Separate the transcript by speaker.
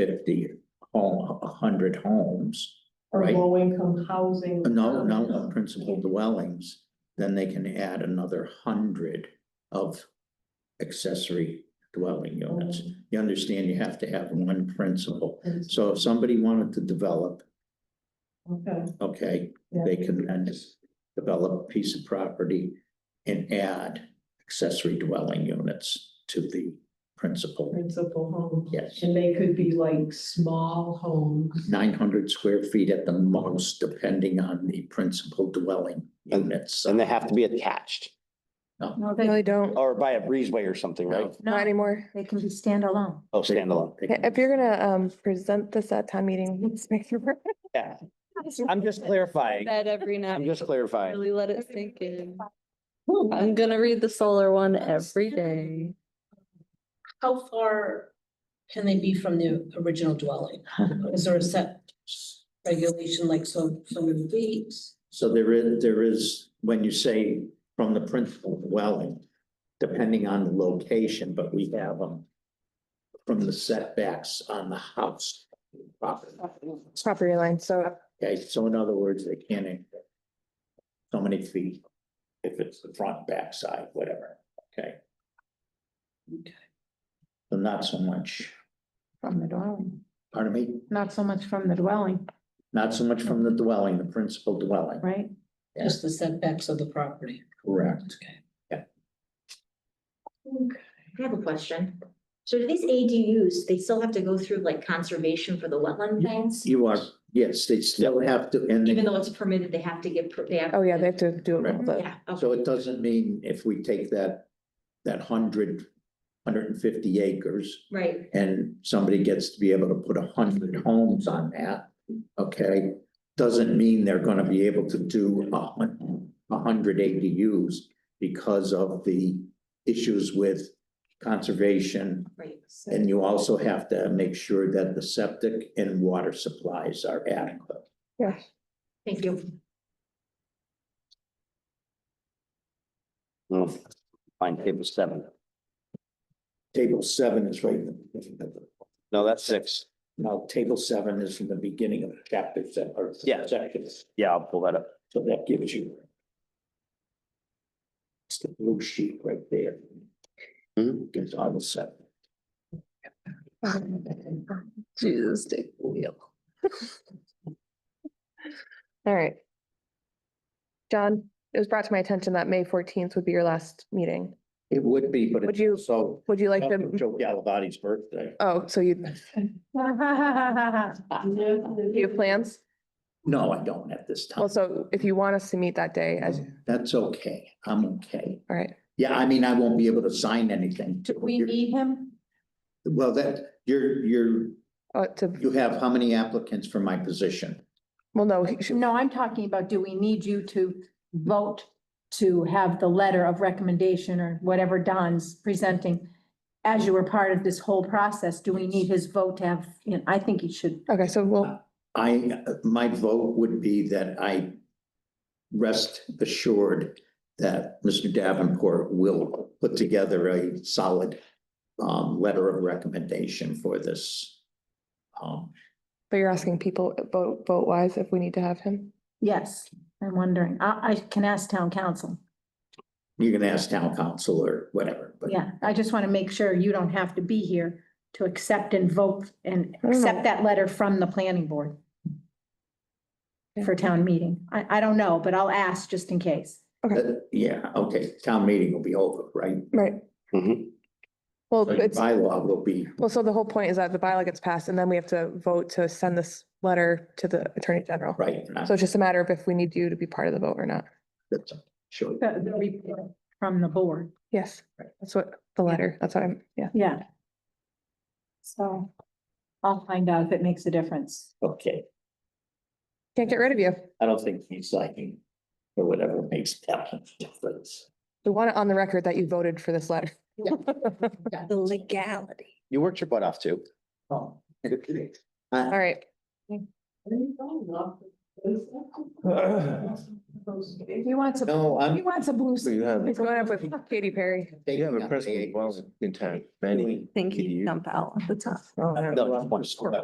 Speaker 1: fifty home, a hundred homes.
Speaker 2: or
Speaker 1: Right.
Speaker 2: low income housing. Um,
Speaker 1: No, no, no, principal dwellings, then they can add another hundred of accessory dwelling units.
Speaker 2: Oh.
Speaker 1: You understand you have to have one principal.
Speaker 2: Okay,
Speaker 1: So if somebody wanted to develop, okay,
Speaker 2: yeah.
Speaker 1: they can then just develop a piece of property and add accessory dwelling units to the principal.
Speaker 2: Principal home,
Speaker 1: Yes,
Speaker 2: and they could be like small homes.
Speaker 1: nine hundred square feet at the most, depending on the principal dwelling
Speaker 3: And-
Speaker 1: units.
Speaker 3: And they have to be attached
Speaker 4: No,
Speaker 5: No,
Speaker 4: they,
Speaker 5: they don't,
Speaker 3: or by a breezeway or something, right?
Speaker 4: No.
Speaker 5: not anymore.
Speaker 4: they can be standalone.
Speaker 3: Oh, standalone.
Speaker 1: They can-
Speaker 5: If you're gonna um present this at town meeting, let's make sure.
Speaker 3: Yeah, I'm just clarifying.
Speaker 6: That every night,
Speaker 3: I'm just clarifying.
Speaker 6: really let it sink in. I'm gonna read the solar one every day.
Speaker 7: How far can they be from the original dwelling? Is there a set regulation like so, so many feet?
Speaker 1: So there is, there is, when you say from the principal dwelling, depending on the location, but we have them from the setbacks on the house property.
Speaker 5: Property line, so
Speaker 1: Okay, so in other words, they can't exceed so many feet if it's the front, back side, whatever, okay?
Speaker 7: Okay.
Speaker 1: So not so much,
Speaker 4: From the dwelling,
Speaker 1: pardon me,
Speaker 4: not so much from the dwelling,
Speaker 1: not so much from the dwelling, the principal dwelling,
Speaker 4: right?
Speaker 7: Just the setbacks of the property.
Speaker 1: correct?
Speaker 8: I have a question. So do these ADUs, they still have to go through like conservation for the wetland things?
Speaker 1: You are, yes, they still have to, and they
Speaker 8: Even though it's permitted, they have to get, per- they have.
Speaker 5: oh yeah, they have to do it all the
Speaker 8: Yeah, okay.
Speaker 1: So it doesn't mean if we take that, that hundred, hundred and fifty acres
Speaker 8: Right,
Speaker 1: and somebody gets to be able to put a hundred homes on that, okay? Doesn't mean they're gonna be able to do a hun- a hundred ADUs because of the issues with conservation.
Speaker 8: right.
Speaker 1: And you also have to make sure that the septic and water supplies are adequate.
Speaker 8: Thank you.
Speaker 3: Mm. Find table seven.
Speaker 1: Table seven is right, in the-
Speaker 3: No, that's six.
Speaker 1: Now, table seven is from the beginning of chapter seven or
Speaker 3: Yeah.
Speaker 1: sections,
Speaker 3: Yeah, I'll pull that up.
Speaker 1: so that gives you. It's the blue sheet right there.
Speaker 3: Mhm.
Speaker 1: Gives all the seven.
Speaker 6: Jesus, take the wheel.
Speaker 5: All right. John, it was brought to my attention that May fourteenth would be your last meeting.
Speaker 1: It would be, but
Speaker 5: Would you-
Speaker 1: it's so.
Speaker 5: Would you like to,
Speaker 1: Joe Galavati's birthday.
Speaker 5: oh, so you, do you
Speaker 2: You
Speaker 5: have plans?
Speaker 1: No, I don't at this time.
Speaker 5: Well, so if you want us to meet that day, as,
Speaker 1: That's okay, I'm okay.
Speaker 5: all right,
Speaker 1: Yeah, I mean, I won't be able to sign anything.
Speaker 4: Do we need him?
Speaker 1: Well, that, you're, you're,
Speaker 5: uh, to,
Speaker 1: you have how many applicants for my position?
Speaker 5: well, no, he should-
Speaker 4: No, I'm talking about, do we need you to vote to have the letter of recommendation or whatever Don's presenting? As you were part of this whole process, do we need his vote to have, you know, I think he should,
Speaker 5: okay, so we'll,
Speaker 1: I, my vote would be that I rest assured that Mr. Davenport will put together a solid um, letter of recommendation for this. Um,
Speaker 5: but you're asking people vote, vote wise if we need to have him.
Speaker 4: yes, I'm wondering, I, I can ask town council.
Speaker 1: you can ask town council or whatever, but
Speaker 4: Yeah, I just want to make sure you don't have to be here to accept and vote and
Speaker 5: no.
Speaker 4: accept that letter from the planning board for town meeting. I, I don't know, but I'll ask just in case.
Speaker 1: but, Uh, yeah, okay, town meeting will be over, right?
Speaker 5: Right,
Speaker 3: Mhm.
Speaker 5: well,
Speaker 1: So your
Speaker 5: it's.
Speaker 1: Bylaw will be,
Speaker 5: Well, so the whole point is that the bylaw gets passed and then we have to vote to send this letter to the Attorney General.
Speaker 1: right, and I'm
Speaker 5: So it's just a matter of if we need you to be part of the vote or not.
Speaker 1: that's- sure.
Speaker 4: The, the report from the board.
Speaker 5: Yes, that's what the letter, that's what I'm, yeah.
Speaker 4: Yeah. So I'll find out if it makes a difference.
Speaker 1: Okay,
Speaker 5: Can't get rid of you.
Speaker 1: I don't think he's liking or whatever makes that difference.
Speaker 5: We want it on the record that you voted for this letter.
Speaker 6: The legality.
Speaker 3: You worked your butt off too.
Speaker 1: Oh.
Speaker 5: All right.
Speaker 2: He wants a,
Speaker 1: No,
Speaker 2: he
Speaker 1: I'm.
Speaker 2: wants a blue.
Speaker 3: You have,
Speaker 5: It's going up with Katy Perry.
Speaker 3: you have a principal dwelling in town, many.
Speaker 6: Think
Speaker 3: you.
Speaker 6: you jump out at the top.
Speaker 1: No, just one story.